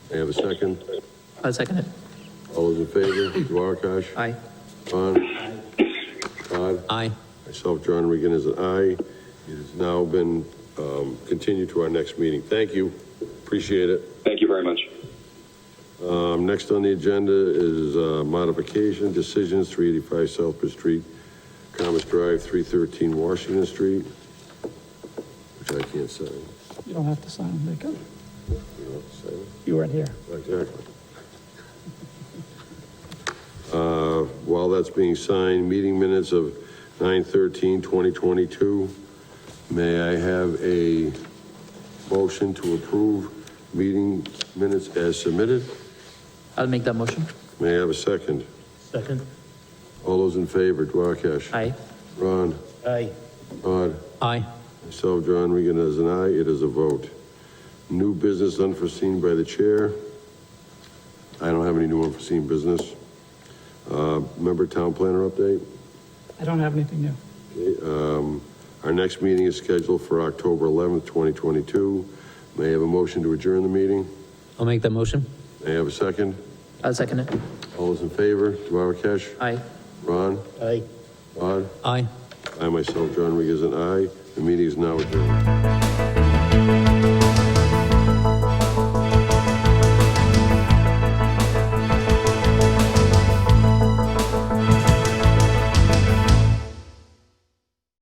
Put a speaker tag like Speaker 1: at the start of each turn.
Speaker 1: May I have a second?
Speaker 2: I'll second it.
Speaker 1: All those in favor, Duarkesh?
Speaker 2: Aye.
Speaker 1: Vaughn? Todd?
Speaker 2: Aye.
Speaker 1: Myself, John Regan, is an aye. It has now been um, continued to our next meeting. Thank you, appreciate it.
Speaker 3: Thank you very much.
Speaker 1: Um, Next on the agenda is uh, modification decisions, 385 Southbridge Street, Commerce Drive, 313 Washington Street, which I can't sign.
Speaker 2: You don't have to sign, they can.
Speaker 1: You know, sign it.
Speaker 2: You weren't here.
Speaker 1: Exactly. Uh, While that's being signed, meeting minutes of 9/13/2022, may I have a motion to approve meeting minutes as submitted?
Speaker 2: I'll make that motion.
Speaker 1: May I have a second?
Speaker 2: Second.
Speaker 1: All those in favor, Duarkesh?
Speaker 2: Aye.
Speaker 1: Ron?
Speaker 2: Aye.
Speaker 1: Todd?
Speaker 2: Aye.
Speaker 1: Myself, John Regan, as an aye, it is a vote. New business unforeseen by the chair. I don't have any new unforeseen business. Uh, Member town planner update.
Speaker 4: I don't have anything new.
Speaker 1: Um, Our next meeting is scheduled for October 11th, 2022. May I have a motion to adjourn the meeting?
Speaker 2: I'll make that motion.
Speaker 1: May I have a second?
Speaker 2: I'll second it.
Speaker 1: All those in favor, Duarkesh?
Speaker 2: Aye.
Speaker 1: Ron?
Speaker 2: Aye.
Speaker 1: Rod?
Speaker 2: Aye.
Speaker 1: I myself, John Regan, as an aye. The meeting is now adjourned.